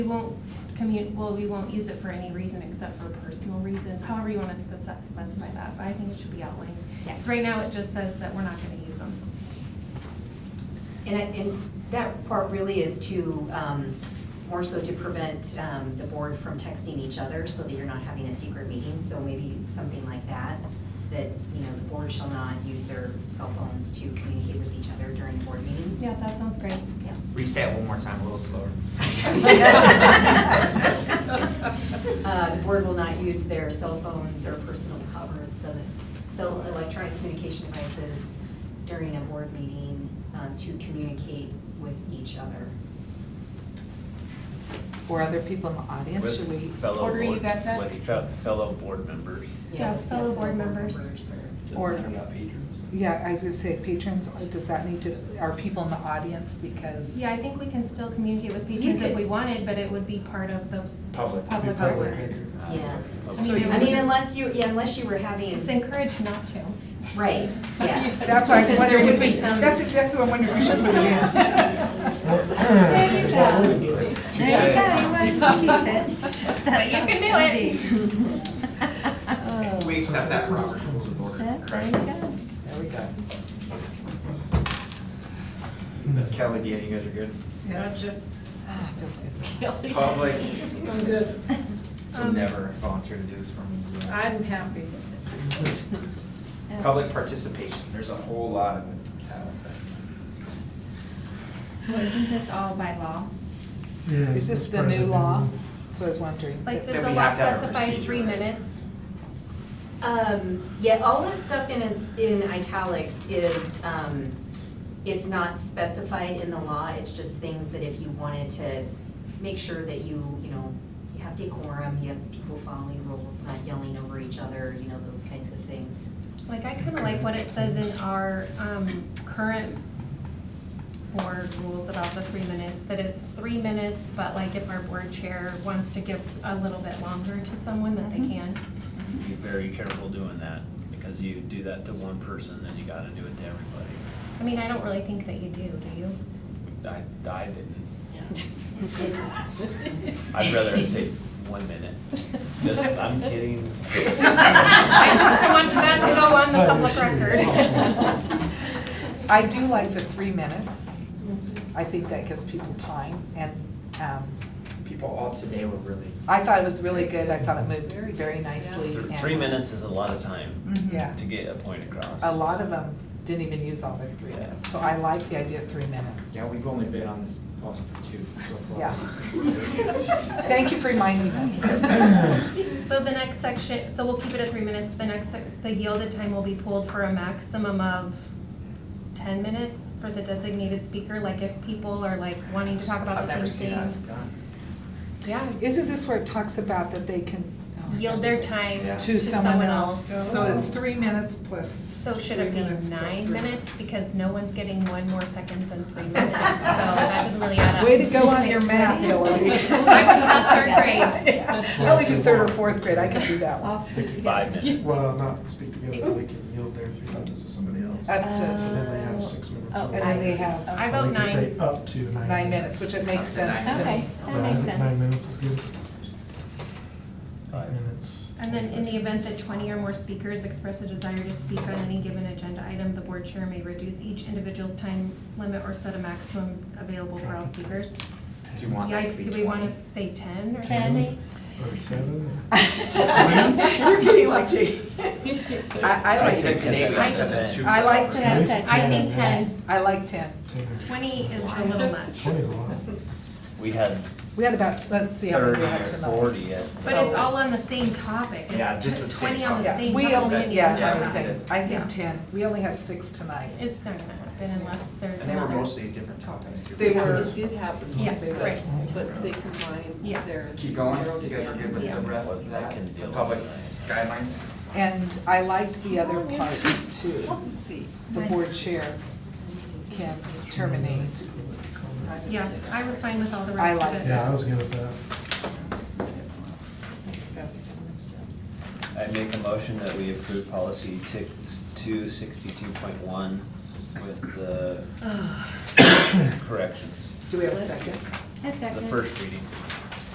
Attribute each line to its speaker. Speaker 1: We won't commu, well, we won't use it for any reason except for personal reasons, however you want to spec- specify that, but I think it should be outlined.
Speaker 2: Yeah.
Speaker 1: Because right now, it just says that we're not going to use them.
Speaker 2: And, I- and that part really is to, um, more so to prevent um, the board from texting each other so that you're not having a secret meeting. So maybe something like that, that, you know, the board shall not use their cell phones to communicate with each other during a board meeting.
Speaker 1: Yeah, that sounds great.
Speaker 2: Yeah.
Speaker 3: Reset one more time, a little slower.
Speaker 2: Uh, The board will not use their cell phones or personal covers, so that, so electronic communication devices during a board meeting um, to communicate with each other.
Speaker 4: Or other people in the audience, should we
Speaker 5: With fellow
Speaker 4: order you
Speaker 5: board-
Speaker 4: got that?
Speaker 5: With fe- fellow board members.
Speaker 1: Yeah, with fellow board members.
Speaker 2: or-
Speaker 4: Or-
Speaker 3: patrons.
Speaker 4: Yeah, I was gonna say patrons, uh, does that need to, are people in the audience because?
Speaker 1: Yeah, I think we can still communicate with
Speaker 2: You
Speaker 1: patrons if
Speaker 2: could-
Speaker 1: we wanted, but it would be part of the
Speaker 3: Public.
Speaker 1: public
Speaker 4: Public.
Speaker 1: record.
Speaker 2: Yeah.
Speaker 4: So
Speaker 1: I mean,
Speaker 2: I
Speaker 4: you would
Speaker 2: mean,
Speaker 4: just-
Speaker 2: unless Uh, you, yeah, unless you were
Speaker 1: It's
Speaker 2: having,
Speaker 1: encouraged not to.
Speaker 2: right, yeah.
Speaker 4: That's why I'm
Speaker 2: Because there
Speaker 4: wondering
Speaker 2: would
Speaker 4: if
Speaker 2: be
Speaker 4: we,
Speaker 2: some-
Speaker 4: that's exactly what I'm wondering if we should put it
Speaker 1: There you go. But you can do it.
Speaker 4: in.
Speaker 3: We accept that Robert's rules of order, correct?
Speaker 4: There we go.
Speaker 3: Kelly, Deanna, you guys are good?
Speaker 4: Gotcha. Ah, feels good.
Speaker 3: Public,
Speaker 6: I'm good. Um,
Speaker 3: so never volunteer to do this for me.
Speaker 6: I'm happy.
Speaker 3: Public participation, there's a whole lot of it, in Title VII.
Speaker 1: Well, isn't this all by law?
Speaker 4: Is this the new law? So I was wondering.
Speaker 1: Like, does
Speaker 3: Then
Speaker 1: the
Speaker 3: we
Speaker 1: law
Speaker 3: have to have a
Speaker 1: specify
Speaker 3: procedure,
Speaker 1: three
Speaker 3: right?
Speaker 1: minutes?
Speaker 2: Um, yeah, all that stuff in is, in italics is, um, it's not specified in the law, it's just things that if you wanted to make sure that you, you know, you have decorum, you have people following rules, not yelling over each other, you know, those kinds of things.
Speaker 1: Like, I kind of like what it says in our um, current board rules about the three minutes, that it's three minutes, but like if our board chair wants to give a little bit longer to someone, that they can.
Speaker 5: Be very careful doing that, because you do that to one person, then you gotta do it to everybody.
Speaker 1: I mean, I don't really think that you do, do you?
Speaker 5: I, I didn't. I'd rather it say one minute. Just, I'm kidding.
Speaker 1: I just don't want that to go on the public record.
Speaker 4: I do like the three minutes. I think that gives people time and, um,
Speaker 3: People all today were really,
Speaker 4: I thought it was really good. I thought it moved very nicely.
Speaker 5: Th-
Speaker 4: and-
Speaker 5: Three minutes is a lot of time
Speaker 4: Mhm. Yeah.
Speaker 5: to get a point across.
Speaker 4: A lot of them didn't even use all their three minutes, so I like the idea of three minutes.
Speaker 3: yeah, we've only been on this policy for two so far.
Speaker 4: Yeah. Thank you for reminding us.
Speaker 1: So the next section, so we'll keep it at three minutes. The next, sec- the yielded time will be pulled for a maximum of ten minutes for the designated speaker, like if people are like wanting to talk about
Speaker 3: I've
Speaker 1: the
Speaker 3: never
Speaker 1: same
Speaker 3: seen
Speaker 1: thing.
Speaker 3: that done.
Speaker 1: Yeah,
Speaker 4: Isn't this where it talks about that they can? oh, I
Speaker 1: yield their time
Speaker 3: Yeah.
Speaker 4: To someone else, so it's three minutes plus.
Speaker 1: So should it
Speaker 4: three
Speaker 1: be
Speaker 4: minutes plus
Speaker 1: nine
Speaker 4: three
Speaker 1: minutes? Because no one's getting one more second than three minutes, so that doesn't really add up.
Speaker 4: Way to go on your math, Hillary.
Speaker 1: I would pass third grade.
Speaker 4: I only do third or fourth grade, I can do that one.
Speaker 5: Five minutes.
Speaker 7: Well, not speak together, they can yield their three minutes to somebody else.
Speaker 4: Up to,
Speaker 7: So then they have six minutes.
Speaker 2: Oh,
Speaker 7: or
Speaker 4: and then they have
Speaker 1: I vote
Speaker 7: We can
Speaker 1: nine.
Speaker 7: say up to nine.
Speaker 4: nine minutes, which it makes sense to
Speaker 2: Okay.
Speaker 4: me.
Speaker 7: But I
Speaker 1: That makes
Speaker 7: think Nine
Speaker 1: sense.
Speaker 7: minutes is good.
Speaker 5: Five.
Speaker 7: Eight minutes.
Speaker 1: And then in the event that twenty or more speakers express a desire to speak on any given agenda item, the board chair may reduce each individual's time limit or set a maximum available for all speakers.
Speaker 3: Do you want that to be
Speaker 1: Yikes, do we
Speaker 3: twenty?
Speaker 1: wanna say ten or?
Speaker 7: Ten. Or seven.
Speaker 4: You're getting like, gee. I, I
Speaker 3: I
Speaker 4: like
Speaker 3: said
Speaker 4: it.
Speaker 3: today, we
Speaker 1: I-
Speaker 3: set to two.
Speaker 4: I like
Speaker 7: At
Speaker 4: ten,
Speaker 7: least
Speaker 1: I think ten.
Speaker 4: I like ten.
Speaker 7: Ten or-
Speaker 1: Twenty is a little much.
Speaker 7: Twenty's a lot.
Speaker 5: We had
Speaker 4: We had about, let's see how many
Speaker 5: thirty
Speaker 4: we had
Speaker 5: or
Speaker 4: tonight.
Speaker 5: forty at.
Speaker 1: But it's all on the same topic. It's
Speaker 3: Yeah, just the same
Speaker 1: Twenty on the
Speaker 4: Yeah,
Speaker 1: same topic.
Speaker 4: we only,
Speaker 1: didn't
Speaker 4: yeah,
Speaker 3: Yeah,
Speaker 4: I'm
Speaker 1: even
Speaker 4: just
Speaker 3: we
Speaker 1: talk
Speaker 3: did.
Speaker 4: saying, I
Speaker 1: Yeah.
Speaker 4: think ten, we only had six tonight.
Speaker 1: about it. It's not gonna happen unless
Speaker 3: And
Speaker 1: there's
Speaker 3: they were
Speaker 1: another.
Speaker 3: mostly different topics too.
Speaker 4: They were-
Speaker 6: It did happen.
Speaker 1: Yes,
Speaker 6: but-
Speaker 1: right.
Speaker 6: But they combined
Speaker 1: Yeah.
Speaker 6: their.
Speaker 3: So keep going, you guys are good with the rest of
Speaker 5: Yeah.
Speaker 3: that, the public guidelines?
Speaker 4: And I liked the other
Speaker 1: Oh,
Speaker 4: part too. The board chair can terminate.
Speaker 1: Yeah, I was fine with all the
Speaker 4: I
Speaker 1: rest of
Speaker 4: like
Speaker 1: it.
Speaker 7: Yeah, I was good with that.
Speaker 5: I make a motion that we approve policy tick two sixty-two point one with
Speaker 4: Ah.
Speaker 5: the corrections.
Speaker 4: Do we have a second?
Speaker 5: The first reading.